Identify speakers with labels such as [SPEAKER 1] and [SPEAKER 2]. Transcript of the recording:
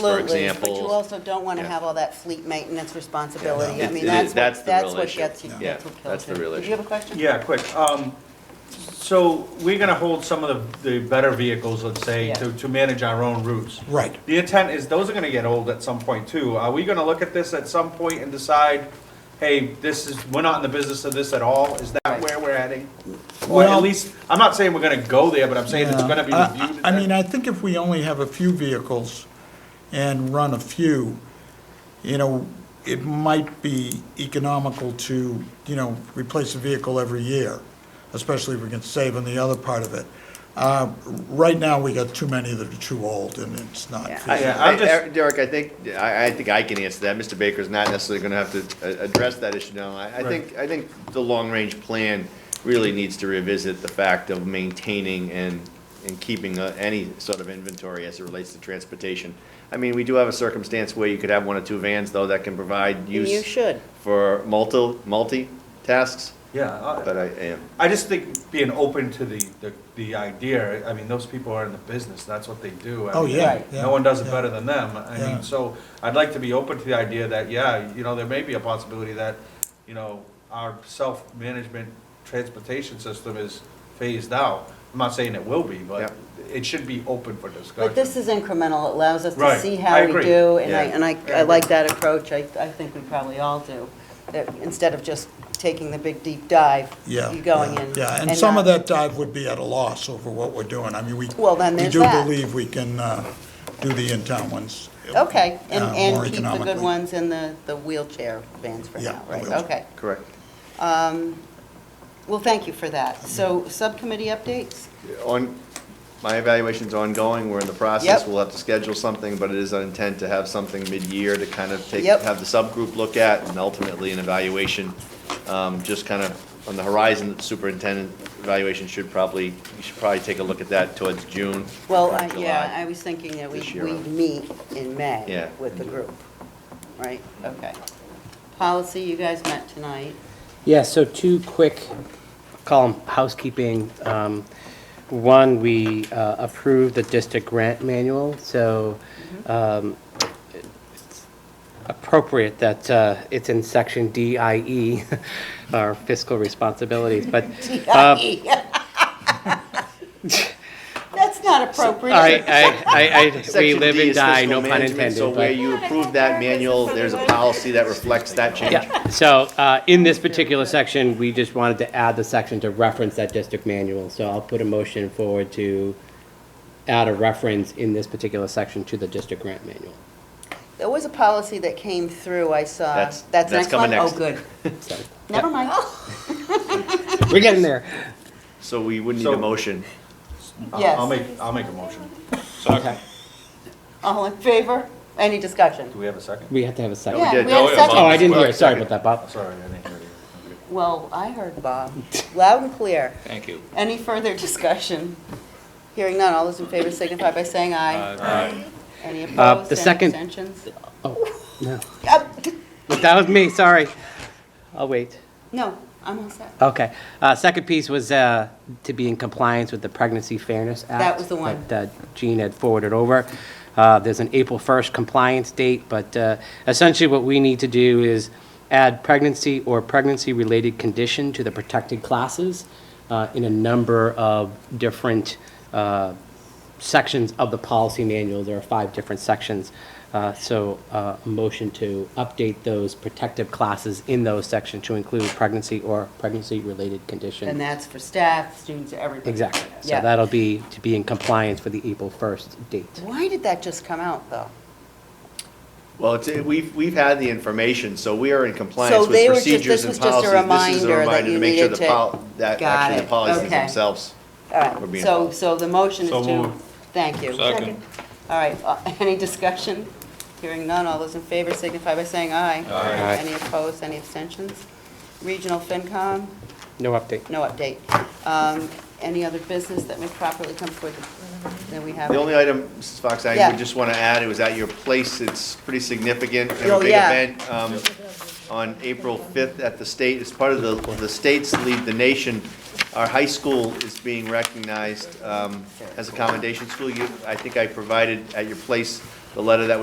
[SPEAKER 1] for
[SPEAKER 2] Absolutely, but you
[SPEAKER 1] example.
[SPEAKER 2] also don't want to
[SPEAKER 1] Yeah.
[SPEAKER 2] have all that fleet maintenance responsibility.
[SPEAKER 1] Yeah.
[SPEAKER 2] I mean,
[SPEAKER 1] It- it
[SPEAKER 2] that's
[SPEAKER 1] is- that's
[SPEAKER 2] what,
[SPEAKER 1] the
[SPEAKER 2] that's
[SPEAKER 1] real
[SPEAKER 2] what
[SPEAKER 1] issue.
[SPEAKER 2] gets you,
[SPEAKER 1] Yeah.
[SPEAKER 2] gets
[SPEAKER 1] Yeah,
[SPEAKER 2] what
[SPEAKER 1] that's
[SPEAKER 2] kills
[SPEAKER 1] the
[SPEAKER 2] you.
[SPEAKER 1] real
[SPEAKER 2] Did
[SPEAKER 1] issue.
[SPEAKER 2] you have a question?
[SPEAKER 3] Yeah, quick. Um, So we're going to hold some of the the better vehicles, let's say,
[SPEAKER 2] Yeah.
[SPEAKER 3] to to manage our own routes.
[SPEAKER 4] Right.
[SPEAKER 3] The intent is those are going to get old at some point too. Are we going to look at this at some point and decide, hey, this is, we're not in the business of this at all? Is that where we're heading? Or at
[SPEAKER 4] Well-
[SPEAKER 3] least, I'm not saying we're going to go there, but I'm saying it's
[SPEAKER 4] Yeah.
[SPEAKER 3] going to be
[SPEAKER 4] Uh, I-
[SPEAKER 3] reviewed.
[SPEAKER 4] I I
[SPEAKER 3] at
[SPEAKER 4] mean,
[SPEAKER 3] that-
[SPEAKER 4] I think if we only have a few vehicles and run a few, you know, it might be economical to, you know, replace a vehicle every year, especially if we can save on the other part of it. Uh, Right now, we got too many that are too old, and it's not
[SPEAKER 2] Yeah.
[SPEAKER 4] feasible.
[SPEAKER 1] I-
[SPEAKER 3] Yeah, I'm
[SPEAKER 1] I-
[SPEAKER 3] just-
[SPEAKER 1] Eric- Er, Derek, I think, I, I think I can answer that. Mr. Baker's not necessarily gonna have to uh, address that issue now. I, I
[SPEAKER 3] Right.
[SPEAKER 1] think, I think the long-range plan really needs to revisit the fact of maintaining and, and keeping uh, any sort of inventory as it relates to transportation. I mean, we do have a circumstance where you could have one or two vans, though, that can provide
[SPEAKER 2] And
[SPEAKER 1] use.
[SPEAKER 2] You should.
[SPEAKER 1] For multi, multi-tasks,
[SPEAKER 3] Yeah. I-
[SPEAKER 1] but I am,
[SPEAKER 3] I just think being open to the, the, the idea, I mean, those people are in the business, that's what they do. I
[SPEAKER 4] Oh,
[SPEAKER 3] mean,
[SPEAKER 4] yeah,
[SPEAKER 2] Right.
[SPEAKER 4] yeah,
[SPEAKER 3] No one does it
[SPEAKER 4] yeah.
[SPEAKER 3] better than them, I
[SPEAKER 4] Yeah.
[SPEAKER 3] mean, so I'd like to be open to the idea that, yeah, you know, there may be a possibility that, you know, our self-management transportation system is phased out. I'm not saying it will be, but it should be open for discussion.
[SPEAKER 2] But this is incremental, it allows us to
[SPEAKER 3] Right.
[SPEAKER 2] see
[SPEAKER 3] I
[SPEAKER 2] how we
[SPEAKER 3] agree.
[SPEAKER 2] do, and I,
[SPEAKER 1] Yeah.
[SPEAKER 2] and I,
[SPEAKER 3] I
[SPEAKER 2] I like
[SPEAKER 3] agree.
[SPEAKER 2] that approach, I, I think we probably all do. That instead of just taking the big deep dive,
[SPEAKER 4] Yeah.
[SPEAKER 2] you're going
[SPEAKER 4] yeah,
[SPEAKER 2] in.
[SPEAKER 4] Yeah, and some of
[SPEAKER 2] not-
[SPEAKER 4] that dive would be at a loss over what we're doing. I mean, we,
[SPEAKER 2] Well, then
[SPEAKER 4] we
[SPEAKER 2] there's
[SPEAKER 4] do
[SPEAKER 2] that.
[SPEAKER 4] believe we can uh, do the in-town ones.
[SPEAKER 2] Okay, and,
[SPEAKER 4] uh, more
[SPEAKER 2] and keep the good
[SPEAKER 4] economically.
[SPEAKER 2] ones and the, the wheelchair vans for
[SPEAKER 4] Yeah,
[SPEAKER 2] now,
[SPEAKER 4] the
[SPEAKER 2] right,
[SPEAKER 4] wheelchair.
[SPEAKER 2] okay.
[SPEAKER 1] correct.
[SPEAKER 2] Well, thank you for that. So, subcommittee updates?
[SPEAKER 1] on, my evaluation's ongoing, we're in the process,
[SPEAKER 2] Yep.
[SPEAKER 1] we'll have to schedule something, but it is our intent to have something mid-year to kind of take,
[SPEAKER 2] Yep.
[SPEAKER 1] have the subgroup look at, and ultimately an evaluation, um, just kind of on the horizon, the superintendent evaluation should probably, you should probably take a look at that towards June.
[SPEAKER 2] Well,
[SPEAKER 1] or
[SPEAKER 2] I- yeah,
[SPEAKER 1] July.
[SPEAKER 2] I was thinking that we,
[SPEAKER 1] this year.
[SPEAKER 2] we meet in May
[SPEAKER 1] Yeah. Mm-hmm.
[SPEAKER 2] with the group, right? Okay. Policy, you guys met tonight.
[SPEAKER 5] Yeah, so two quick, call 'em housekeeping. Um, One, we uh, approved the district grant manual, so um, it's appropriate that uh, it's in section DIE, our fiscal responsibilities, but. uh,
[SPEAKER 1] E.
[SPEAKER 2] That's not
[SPEAKER 5] All
[SPEAKER 2] appropriate.
[SPEAKER 5] right, I, I, I, we
[SPEAKER 1] Section
[SPEAKER 5] live
[SPEAKER 1] D
[SPEAKER 5] and
[SPEAKER 1] is
[SPEAKER 5] die,
[SPEAKER 1] fiscal
[SPEAKER 5] no pun
[SPEAKER 1] management,
[SPEAKER 5] intended.
[SPEAKER 1] So
[SPEAKER 5] but-
[SPEAKER 1] where you approve that manual, there's a policy that reflects that change.
[SPEAKER 5] Yeah, so uh, in this particular section, we just wanted to add the section to reference that district manual. So I'll put a motion forward to add a reference in this particular section to the district grant manual.
[SPEAKER 2] There was a policy that came through, I saw.
[SPEAKER 1] That's-
[SPEAKER 2] That's
[SPEAKER 1] that's
[SPEAKER 2] next one?
[SPEAKER 1] coming
[SPEAKER 2] Oh,
[SPEAKER 1] next.
[SPEAKER 2] good.
[SPEAKER 5] So,
[SPEAKER 2] Never mind.
[SPEAKER 5] We're getting there.
[SPEAKER 1] So we would need a
[SPEAKER 3] So-
[SPEAKER 1] motion.
[SPEAKER 3] I'll-
[SPEAKER 2] yes.
[SPEAKER 3] I'll make, I'll make a motion.
[SPEAKER 5] Okay.
[SPEAKER 2] All in favor? Any discussion?
[SPEAKER 3] Do we have a second? Oh,
[SPEAKER 5] We have to have a second.
[SPEAKER 2] Yeah,
[SPEAKER 1] did.
[SPEAKER 2] we had
[SPEAKER 1] Oh,
[SPEAKER 2] a
[SPEAKER 1] yeah,
[SPEAKER 2] second.
[SPEAKER 5] Oh, I didn't hear, sorry about that, Bob.
[SPEAKER 3] Sorry, I didn't hear you.
[SPEAKER 2] Well, I heard Bob, loud and clear. Thank you. Any further discussion? Hearing none, all those in favor signify by saying aye. Aye. Any
[SPEAKER 5] Uh, the
[SPEAKER 2] opposed, any
[SPEAKER 5] second-
[SPEAKER 2] abstentions?
[SPEAKER 5] Oh, no.
[SPEAKER 2] Uh,
[SPEAKER 5] That was me, sorry. I'll wait.
[SPEAKER 2] No, I'm all set.
[SPEAKER 5] Okay. Uh, Second piece was uh, to be in compliance with the Pregnancy Fairness Act.
[SPEAKER 2] That was the one.
[SPEAKER 5] That uh, Jean had forwarded over. Uh, There's an April 1st compliance date, but uh, essentially what we need to do is add pregnancy or pregnancy-related condition to the protected classes uh, in a number of different uh, sections of the policy manual. There are five different sections. Uh, So uh, a motion to update those protective classes in those sections to include pregnancy or pregnancy-related condition.
[SPEAKER 2] And that's for staff, students, everybody.
[SPEAKER 5] Exactly. So
[SPEAKER 2] Yeah.
[SPEAKER 5] that'll be to be in compliance for the April 1st date.
[SPEAKER 2] Why did that just come out, though?
[SPEAKER 1] Well, it's, we've, we've had the information, so we are in
[SPEAKER 2] So
[SPEAKER 1] compliance
[SPEAKER 2] they
[SPEAKER 1] with
[SPEAKER 2] were just-
[SPEAKER 1] procedures
[SPEAKER 2] this
[SPEAKER 1] and
[SPEAKER 2] was just a
[SPEAKER 1] policies.
[SPEAKER 2] reminder that you
[SPEAKER 1] to make sure
[SPEAKER 2] needed
[SPEAKER 1] the
[SPEAKER 2] to-
[SPEAKER 1] pol- That
[SPEAKER 2] Got
[SPEAKER 1] actually
[SPEAKER 2] it.
[SPEAKER 1] the policies
[SPEAKER 2] Okay.
[SPEAKER 1] themselves.
[SPEAKER 2] All
[SPEAKER 1] We're
[SPEAKER 2] right,
[SPEAKER 1] being
[SPEAKER 2] so,
[SPEAKER 1] followed.
[SPEAKER 2] so the motion is
[SPEAKER 3] So
[SPEAKER 2] to,
[SPEAKER 3] moved.
[SPEAKER 2] thank you.
[SPEAKER 3] Second.
[SPEAKER 2] All right, uh, any discussion? Hearing none, all those in favor signify by saying aye.
[SPEAKER 5] Aye.
[SPEAKER 2] Any opposed, any abstentions? Regional FinCom,
[SPEAKER 5] No update.
[SPEAKER 2] no update. Um, Any other business that may properly come forward that we have?
[SPEAKER 1] The only item, Mrs. Fox, I
[SPEAKER 2] Yeah.
[SPEAKER 1] would just want to add, it was at your place, it's pretty significant, and
[SPEAKER 2] Oh,
[SPEAKER 1] a big
[SPEAKER 2] yeah.
[SPEAKER 1] event. um, On April 5th at the state, as part of the, the state's lead the nation, our high school is being recognized um, as a commendation school. You, I think I provided at your place the letter that was